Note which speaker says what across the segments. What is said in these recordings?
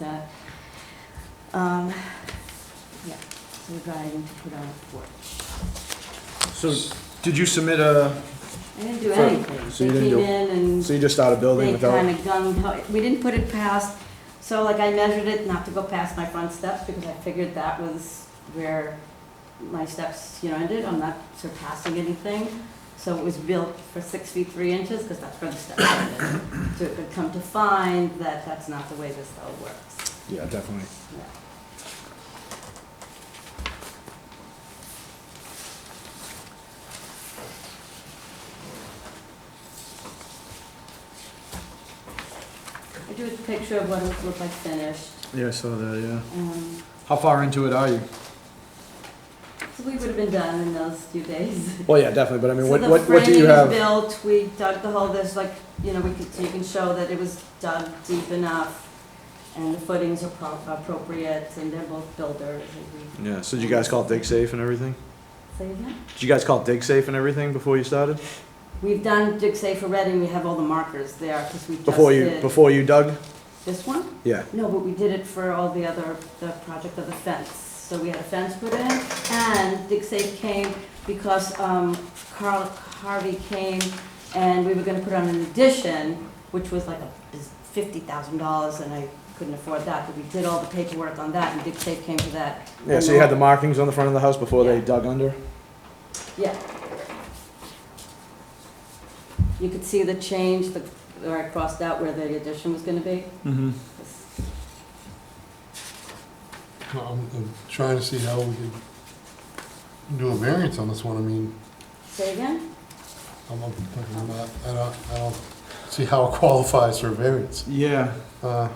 Speaker 1: Uh, um, yeah, so we're driving to put on a porch.
Speaker 2: So, did you submit a,
Speaker 1: I didn't do
Speaker 2: So-
Speaker 1: anything.
Speaker 2: so you
Speaker 1: They
Speaker 2: didn't
Speaker 1: came
Speaker 2: do-
Speaker 1: in and
Speaker 2: so you just started building
Speaker 1: they
Speaker 2: without?
Speaker 1: kind of gung, we didn't put it past, so like I measured it not to go past my front steps because I figured that was where my steps, you know, ended. I'm not surpassing anything. So it was built for six feet, three inches because that's where the steps ended. So it could come to find that that's not the way this all works.
Speaker 2: Yeah, definitely.
Speaker 1: Yeah. I drew a picture of what it looked like finished.
Speaker 2: Yeah, I saw that, yeah.
Speaker 1: Um,
Speaker 2: How far into it are you?
Speaker 1: So we would have been done in those few days.
Speaker 2: Well, yeah, definitely, but I mean,
Speaker 1: So
Speaker 2: what,
Speaker 1: the
Speaker 2: what, what do
Speaker 1: framing
Speaker 2: you
Speaker 1: was
Speaker 2: have?
Speaker 1: Built, we dug the hole, there's like, you know, we could, so you can show that it was dug deep enough and the footings are pro- appropriate and they're both builders and we,
Speaker 2: Yeah, so did you guys call dig safe and everything?
Speaker 1: say again?
Speaker 2: Did you guys call dig safe and everything before you started?
Speaker 1: We've done Dig Safe for Reading, we have all the markers there, because we just
Speaker 2: Before you,
Speaker 1: did
Speaker 2: before you dug?
Speaker 1: this one.
Speaker 2: Yeah,
Speaker 1: No, but we did it for all the other, the project of the fence. So we had a fence put in, and Dig Safe came because um, Carl Harvey came, and we were gonna put on an addition, which was like a fifty thousand dollars, and I couldn't afford that, but we did all the paperwork on that, and Dig Safe came to that.
Speaker 2: yeah, so you had the markings on the front of the house before they
Speaker 1: Yeah.
Speaker 2: dug under?
Speaker 1: Yeah. You could see the change, the, where I crossed out where the addition was gonna be.
Speaker 2: Mm-hmm.
Speaker 3: Well, I'm, I'm trying to see how we could do a variance on this one, I mean,
Speaker 1: Say again?
Speaker 3: I'm, I'm I'm not, I don't, I don't see how it qualifies for a variance.
Speaker 2: Yeah,
Speaker 3: Uh,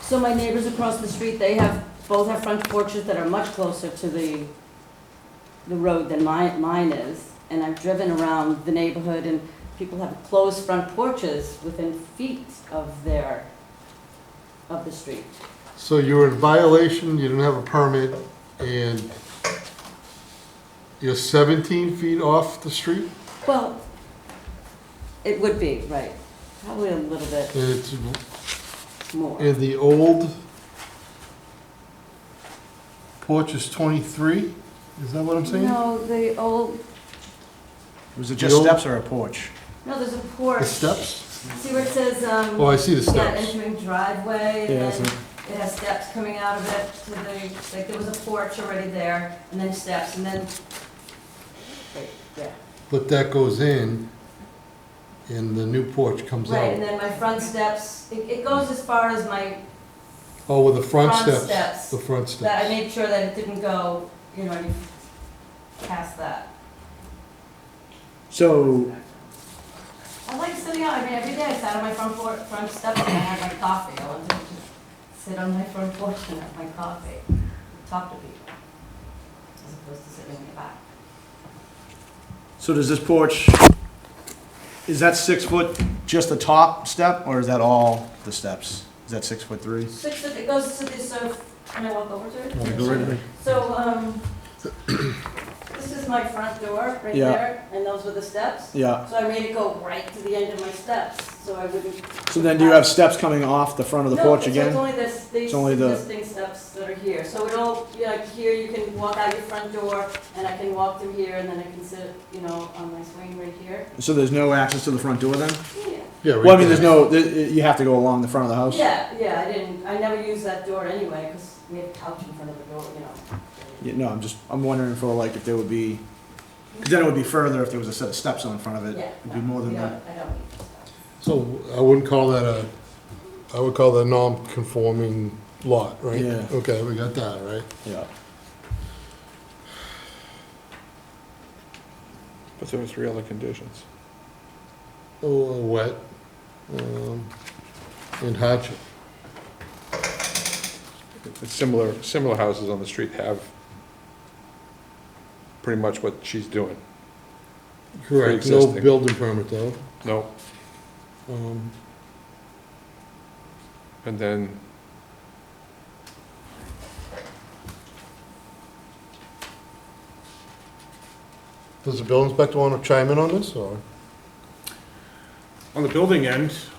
Speaker 1: So my neighbors across the street, they have, both have front porches that are much closer to the, the road than mine, mine is. And I've driven around the neighborhood and people have closed front porches within feet of their, of the street.
Speaker 3: So you were in violation, you didn't have a permit, and you're seventeen feet off the street?
Speaker 1: Well, it would be, right, probably a little bit
Speaker 3: And it's,
Speaker 1: more.
Speaker 3: and the old porch is twenty-three? Is that what I'm saying?
Speaker 1: No, the old,
Speaker 2: was it
Speaker 3: The
Speaker 2: just
Speaker 3: old-
Speaker 2: steps or a porch?
Speaker 1: no, there's a
Speaker 3: The
Speaker 1: porch.
Speaker 3: steps?
Speaker 1: See where it says,
Speaker 3: Oh,
Speaker 1: um,
Speaker 3: I see the
Speaker 1: yeah,
Speaker 3: steps.
Speaker 1: entering driveway,
Speaker 2: Yeah,
Speaker 1: and
Speaker 2: so-
Speaker 1: then it has steps coming out of it to the, like, there was a porch already there, and then steps, and then, right, yeah.
Speaker 3: But that goes in, and the new porch comes out.
Speaker 1: Right, and then my front steps, it, it goes as far as my,
Speaker 3: Oh, with the front
Speaker 1: Front
Speaker 3: steps?
Speaker 1: steps.
Speaker 3: The front
Speaker 1: that, I
Speaker 3: steps.
Speaker 1: made sure that it didn't go, you know, any past that.
Speaker 2: So,
Speaker 1: I like sitting out, I mean, every day I sat on my front por front step and I had my coffee, I wanted to just sit on my front porch and have my coffee, talk to people, as opposed to sitting in the back.
Speaker 2: so does this porch, is that six foot just the top step, or is that all the steps? Is that six foot three?
Speaker 1: Six, foot- it goes to this, so, can I walk over to it?
Speaker 3: Wanna go right away?
Speaker 1: So, um, this is my front door, right
Speaker 2: Yeah.
Speaker 1: there, and those were the steps.
Speaker 2: Yeah.
Speaker 1: So I made it go right to the end of my steps, so I wouldn't.
Speaker 2: So then do you have steps coming off the front of the porch
Speaker 1: No, it's
Speaker 2: again?
Speaker 1: only this, these
Speaker 2: It's only the-
Speaker 1: existing steps that are here, so it'll, yeah, like here, you can walk out your front door, and I can walk through here, and then I can sit, you know, on my swing right here.
Speaker 2: So there's no access to the front door then?
Speaker 1: Yeah,
Speaker 3: Yeah, right
Speaker 2: Well, I mean,
Speaker 3: there.
Speaker 2: there's no, there- you have to go along the front of the house?
Speaker 1: yeah, yeah, I didn't, I never used that door anyway, because we have couch in front of the door, you know.
Speaker 2: Yeah, No, I'm just, I'm wondering for like if there would be, because then it would be further if there was a set of steps on the front of it.
Speaker 1: Yeah.
Speaker 2: It'd be more than
Speaker 1: no,
Speaker 2: that.
Speaker 1: I don't, I don't need those steps.
Speaker 3: So I wouldn't call that a, I would call that a non-conforming lot, right?
Speaker 2: Yeah.
Speaker 3: Okay, we got that, right?
Speaker 2: Yeah.
Speaker 4: But there were three other conditions.
Speaker 3: Oh, uh, wet, um, and hardship.
Speaker 4: It's Similar, similar houses on the street have pretty much what she's doing.
Speaker 3: Correct, no
Speaker 4: Pre-existing.
Speaker 3: building permit though.
Speaker 4: No,
Speaker 3: Um,
Speaker 4: and then
Speaker 3: Does the building inspector want to chime in on this, or?
Speaker 5: On the building end,